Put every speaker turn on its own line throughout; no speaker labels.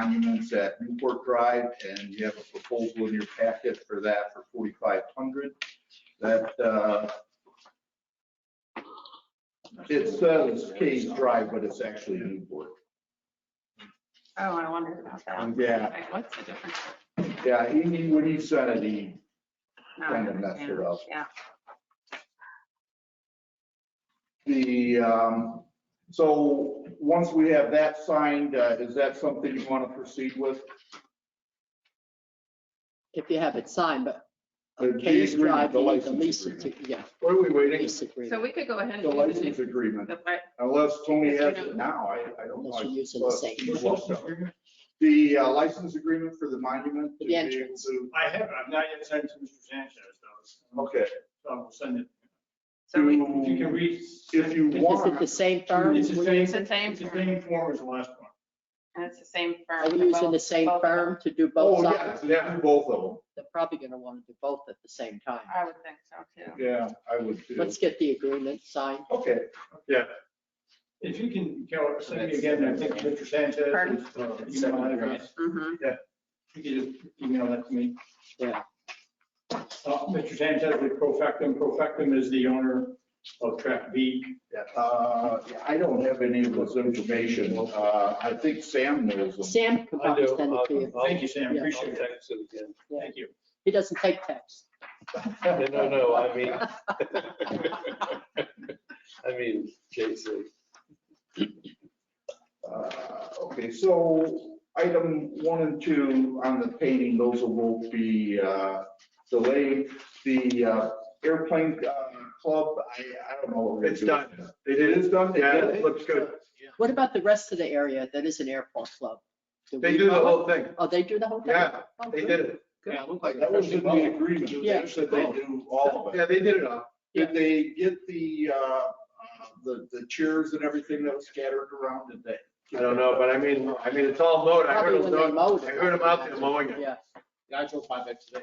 monuments at Newport Drive, and you have a proposal in your packet for that for forty-five hundred. That, uh, it says Case Drive, but it's actually Newport.
Oh, I wondered about that.
Yeah,
Like, What's the difference?
yeah, he- he, when he said it, he
Now I
Kind of messed
understand.
it up.
Yeah.
The, um, so once we have that signed, uh, is that something you want to proceed with?
if you have it signed, but
The-
a
the
case
agreement,
drive,
the
you need the
license
lease,
agreement.
agre- yeah,
What are we waiting?
lease
So
agreement,
we could go ahead and
The
do the
license
next-
agreement,
the li-
unless Tony has it now, I, I don't know.
unless you're using the same.
You're welcome. The uh, license agreement for the monument. to
The
be able
entrance.
to-
I have, I've not yet sent it to Mr. Sanchez, though.
Okay.
So I will send it.
So
Hmm.
we,
If you can
To-
read.
If you
Is it the
want,
same firm?
It's the same,
It's the same
it's the same form as the last one.
and it's the same firm.
Are we
for
using the
both-
same
both of them.
firm to do
oh,
both
yeah,
sides?
yeah, both of
They're probably gonna wanna do both at the same time.
I would think so too.
them. Yeah, I would too.
Let's get the agreement signed.
Okay, yeah.
If you can, Carol, send me again, I think Mr. Sanchez.
Pardon?
uh, email address.
Mm-hmm.
You can just email that to me.
Yeah.
Uh, Mr. Sanchez with Profectum. Profectum is the owner of Track B.
Uh, I don't have any of this information. Uh, I think Sam knows them.
Sam could
I
probably
do.
send it to you.
I'll-
Thank you, Sam.
Yeah.
I'll
Appreciate that.
text it again.
Thank you.
He doesn't take text.
No, no, I mean. I mean, Jason.
Uh, Okay, so item one and two on the painting, those will be uh, delayed. The uh, airplane uh, club, I, I don't know. what we're gonna
It's
do.
done.
It is done?
Yeah, it looks good.
What about the rest of the area that is an airport club?
They
we
do the
know it?
whole thing.
Oh, they do the whole thing? Oh,
Yeah,
Oh,
They did it.
Yeah, it looked
That was in the agreement.
Yeah.
They said they do all of it.
Yeah, they did it all.
Did they get the, uh, uh, the the chairs and everything that was scattered around today?
I don't know, but I mean, I mean, it's all mowed. I heard
Probably
them,
when they
mowing-
mowed it.
I heard them out there mowing it.
Yeah,
I drove by that today.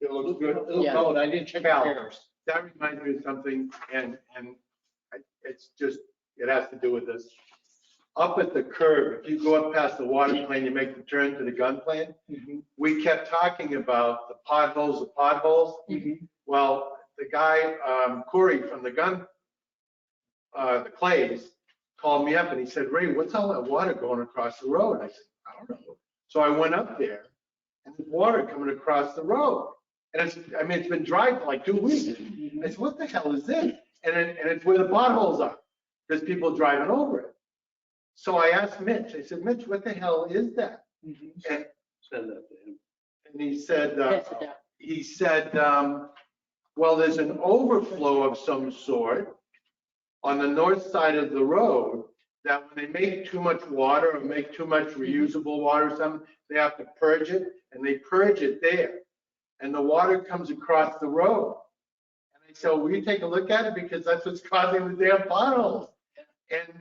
It looks
It
good.
looked
Yeah.
cold. I didn't check the
Cal.
cameras.
That reminds me of something and, and I- it's just, it has to do with this. Up at the curb, if you go up past the water plant, you make the turn to the gun plant.
Mm-hmm.
We kept talking about the potholes, the potholes.
Mm-hmm.
Well, the guy, um, Corey from the gun, uh, the Clays, called me up and he said, Ray, what's all that water going across the road? I said, I don't know. So I went up there and there's water coming across the road. And it's, I mean, it's been dry for like two weeks. I said, what the hell is this? And then, and it's where the potholes are, because people driving over it. So I asked Mitch, I said, Mitch, what the hell is that?
Send that to him.
And he said, uh,
pass it down.
he said, um, well, there's an overflow of some sort on the north side of the road that when they make too much water or make too much reusable water or something, they have to purge it and they purge it there. And the water comes across the road. And I said, will you take a look at it? Because that's what's causing the damn potholes. And,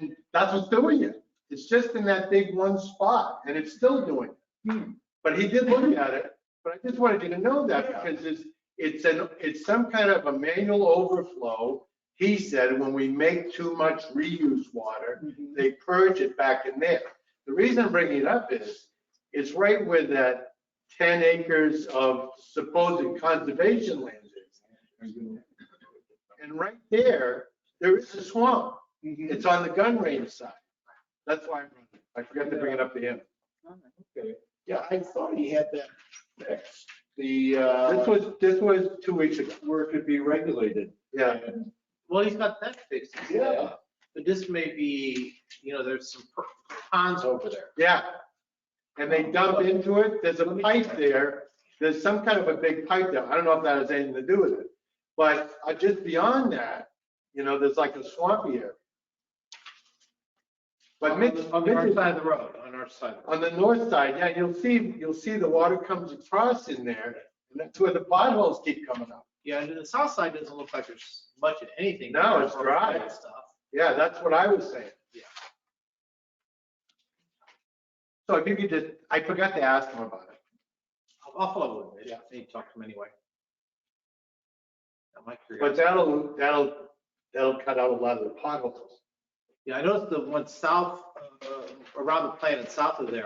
and that's what's doing it. It's just in that big one spot and it's still doing it. But he did look at it but I just wanted you to know that because it's, it's an, it's some kind of a manual overflow. He said, when we make too much reuse water, they purge it back in there. The reason I'm bringing it up is, it's right where that ten acres of supposed conservation land is. And right there, there is a swamp. It's on the gun range side. That's why I brought it. I forgot to bring it up to him.
Yeah, I thought he had that fixed. The, uh,
This was, this was two weeks ago.
where it could be regulated.
Yeah.
Well, he's got that fixed. he's
Yeah.
there. But this may be, you know, there's some per- ponds over there.
Yeah. And they dump into it, there's a pipe there, there's some kind of a big pipe there, I don't know if that has anything to do with it. But uh, just beyond that, you know, there's like a swamp here. But
On
Mitch,
the- On the
Mitch
north
is
side of the road, on our side.
on the north side, yeah, you'll see, you'll see the water comes across in there, and that's where the potholes keep coming up.
Yeah, and the south side doesn't look like there's much of anything.
No, it's
Or that
dry.
Stuff.
Yeah, that's what I was saying.
Yeah.
So if you could just, I forgot to ask him about it.
I'll- I'll follow with him.
Yeah.
They talk to him anyway. That might figure
But
out-
that'll, that'll, that'll cut out a lot of the potholes.
Yeah, I noticed the one south, uh, around the planet, south of there,